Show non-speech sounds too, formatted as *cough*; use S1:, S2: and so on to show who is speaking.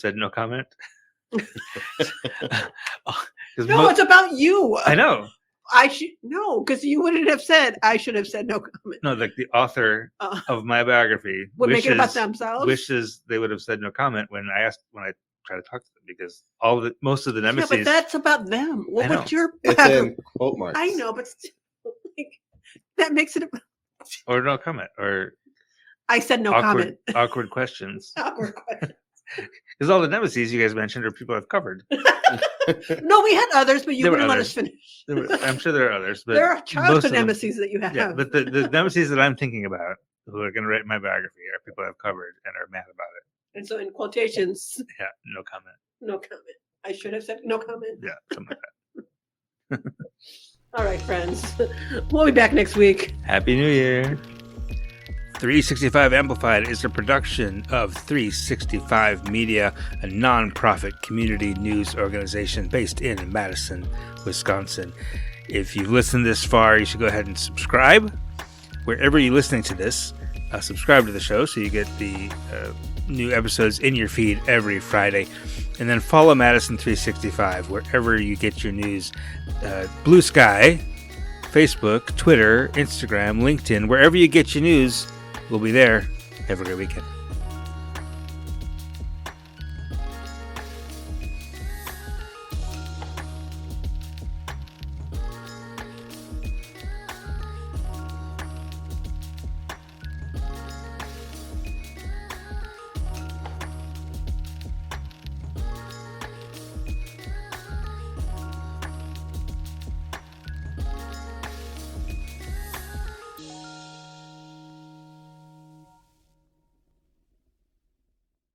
S1: said no
S2: *laughs*
S1: comment. Because
S2: No, it's about you.
S1: I know.
S2: I should no, because you wouldn't have said. I should have said no comment.
S1: No, like the author
S2: Uh,
S1: of my biography
S2: would make it about
S1: wishes-
S2: themselves.
S1: wishes they would have said no comment when I asked when I tried to talk to them because all the most of the
S2: yeah,
S1: nemesis
S2: but that's about them. What
S1: I know.
S2: would your
S3: It's in quote marks.
S2: I know, but still, *laughs* like, that makes it. ab-
S1: or no comment
S2: *laughs*
S1: or
S2: I said no
S1: awkward
S2: comment. *laughs*
S1: awkward questions
S2: Awkward question.
S1: because all the nemesis you guys mentioned are people I've covered.
S2: no, we had others, but you
S1: There were
S2: wouldn't let
S1: others.
S2: us finish.
S1: There were- I'm sure there are others, but
S2: there are
S1: most of
S2: childhood
S1: them-
S2: nemesis that you have.
S1: Yeah, but the, the nemesis that I'm thinking about who are going to write my biography are people I've covered and are mad about it.
S2: and so in quotations, *laughs*
S1: Yeah, no comment.
S2: no comment. I should have said no comment.
S1: Yeah, something like
S2: *laughs* All right, friends. *laughs* We'll be back next week.
S1: that. Happy New Year. 365 Amplified is a production of 365 Media, a nonprofit community news organization based in Madison, Wisconsin. If you've listened this far, you should go ahead and subscribe wherever you're listening to this. Uh, subscribe to the show so you get the uh, new episodes in your feed every Friday. And then follow Madison 365 wherever you get your news. Uh, Blue Sky, Facebook, Twitter, Instagram, LinkedIn, wherever you get your news, we'll be there. Have a great weekend.